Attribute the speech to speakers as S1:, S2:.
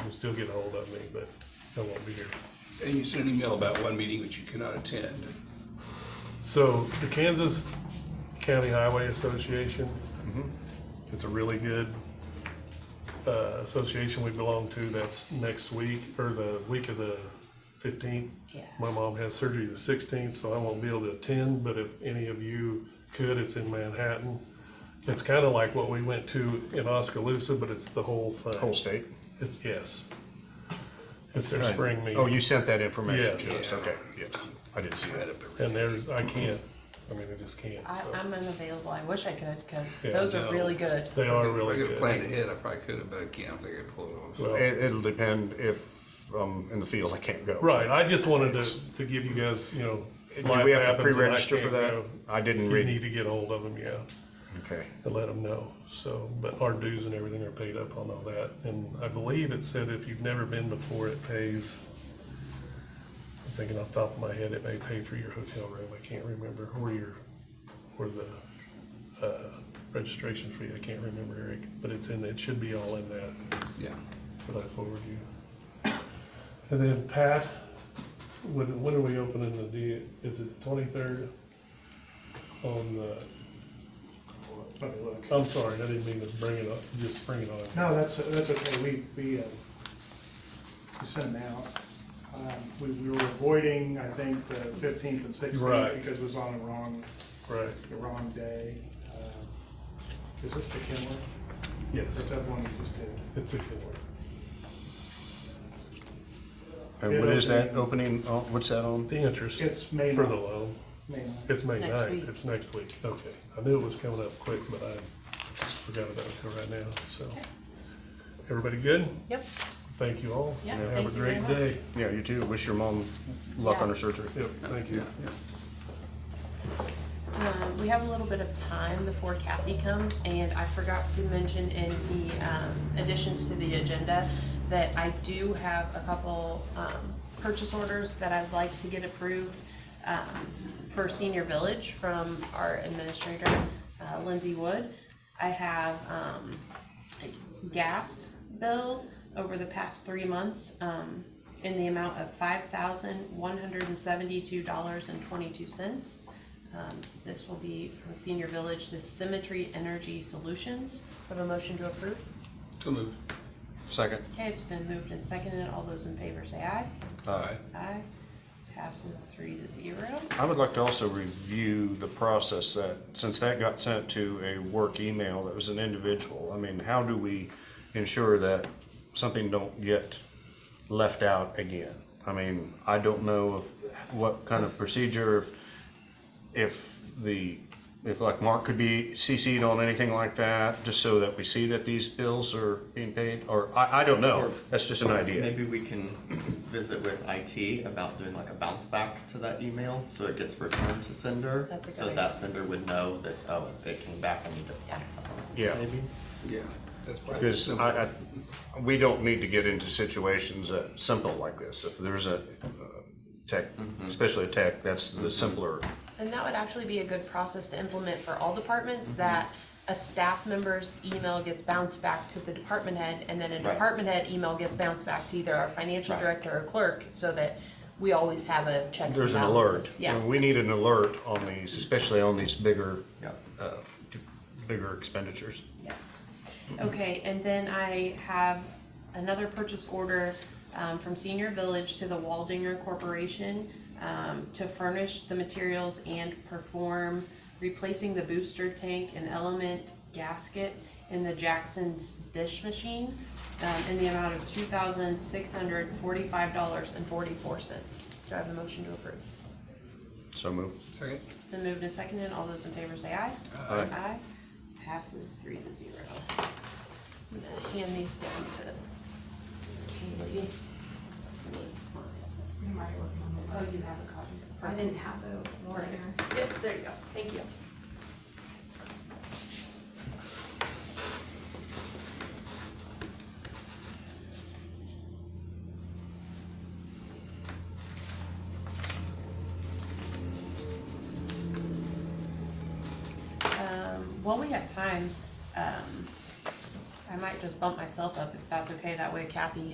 S1: can still get a hold of me, but I won't be here.
S2: And you sent an email about one meeting which you cannot attend.
S1: So the Kansas County Highway Association,
S3: Mm-hmm.
S1: it's a really good uh, association we belong to. That's next week, or the week of the fifteenth.
S4: Yeah.
S1: My mom has surgery the sixteenth, so I won't be able to attend, but if any of you could, it's in Manhattan. It's kind of like what we went to in Oskaloosa, but it's the whole thing.
S3: Whole state?
S1: It's, yes. It's their spring meeting.
S3: Oh, you sent that information
S1: Yes.
S3: to us, okay, yes, I didn't see that.
S1: And there's, I can't, I mean, I just can't,
S4: I,
S1: so.
S4: I'm unavailable. I wish I could because
S1: Yeah,
S4: those
S2: no.
S4: are really good.
S1: They are really
S2: If I could have planned
S1: good.
S2: ahead, I probably could have, but I can't, I think I pulled it off.
S1: Well,
S3: It, it'll depend if I'm in the field, I can't go.
S1: Right, I just wanted to, to give you guys, you know.
S3: Do
S1: life
S3: we have to
S1: happens and I
S3: pre-register for
S1: can't
S3: that?
S1: go.
S3: I didn't
S1: You need
S3: read,
S1: to get hold of them, yeah,
S3: okay.
S1: and let them know, so, but our dues and everything are paid up on all that. And I believe it said if you've never been before, it pays, I'm thinking off the top of my head, it may pay for your hotel room, I can't remember, or your, or the, uh, registration fee, I can't remember, Eric, but it's in, it should be all in that.
S2: Yeah.
S1: Should I forward you? And then Pat, when, when are we opening the, D- is it the twenty-third? On the,
S5: Let me look.
S1: I'm sorry, I didn't mean to bring it up, just bring it on.
S5: No, that's, that's okay, we, we, uh, we sent them out. Um, We, we were avoiding, I think, the fifteenth and sixteenth.
S1: Right.
S5: Because it was on the wrong,
S1: Right,
S5: the wrong day. Uh, Is this the Kenwood?
S1: yes,
S5: Or is that the one you just did?
S1: it's a good one.
S3: And what is that opening, oh, what's that on?
S1: The interest
S5: It's
S1: for
S5: May
S1: the
S5: ninth.
S1: loan,
S5: May ninth.
S1: it's May
S4: Next
S1: ninth,
S4: week.
S1: it's next week, okay. I knew it was coming up quick, but I forgot about it till right now, so. Everybody good?
S4: Yep.
S1: Thank you all.
S4: Yeah,
S1: Have a
S4: thank you
S1: great
S4: very much.
S1: day.
S3: Yeah, you too, wish your mom luck on her surgery.
S1: Yep, thank you.
S4: Um, we have a little bit of time before Kathy comes, and I forgot to mention in the um, additions to the agenda that I do have a couple um, purchase orders that I'd like to get approved um, for Senior Village from our administrator, uh, Lindsay Wood. I have um, gas bill over the past three months um, in the amount of five thousand one hundred and seventy-two dollars and twenty-two cents. Um, This will be from Senior Village to Symmetry Energy Solutions. Have a motion to approve?
S2: So moved.
S3: Second,
S4: Okay, it's been moved and seconded. All those in favor say aye.
S3: aye.
S4: Aye. Passes three to zero.
S3: I would like to also review the process that, since that got sent to a work email that was an individual, I mean, how do we ensure that something don't get left out again? I mean, I don't know if, what kind of procedure, if, if the, if like Mark could be CC'd on anything like that, just so that we see that these bills are being paid, or, I, I don't know, that's just an idea.
S6: Maybe we can visit with IT about doing like a bounce back to that email, so it gets returned to sender.
S4: That's a good
S6: So
S4: idea.
S6: that sender would know that, oh, it came back, I need to fix something.
S3: Yeah.
S6: Maybe.
S2: Yeah. That's probably
S3: Because
S2: simple.
S3: I, I, we don't need to get into situations that simple like this. If there's a uh, tech, especially a tech, that's the simpler.
S4: And that would actually be a good process to implement for all departments, that a staff member's email gets bounced back to the department head, and then a
S6: Right.
S4: department head email gets bounced back to either our financial
S6: Right.
S4: director or clerk, so that we always have a check and
S3: There's an alert.
S4: balances. Yeah.
S3: We need an alert on these, especially on these bigger,
S6: Yeah.
S3: uh, bigger expenditures.
S4: Yes. Okay, and then I have another purchase order um, from Senior Village to the Waldinger Corporation um, to furnish the materials and perform replacing the booster tank and element gasket in the Jackson's dish machine um, in the amount of two thousand six hundred forty-five dollars and forty-four cents. Do I have a motion to approve?
S3: So move.
S2: Second.
S4: Been moved and seconded. All those in favor say aye.
S3: Aye.
S4: Passes three to zero. I'm gonna hand these down to Kaylee.
S7: I'm already working on
S4: Oh, you have a copy.
S7: it. I didn't have the warrant.
S4: Yep, there you go. Thank you. Um, While we have time, um, I might just bump myself up if that's okay. That way Kathy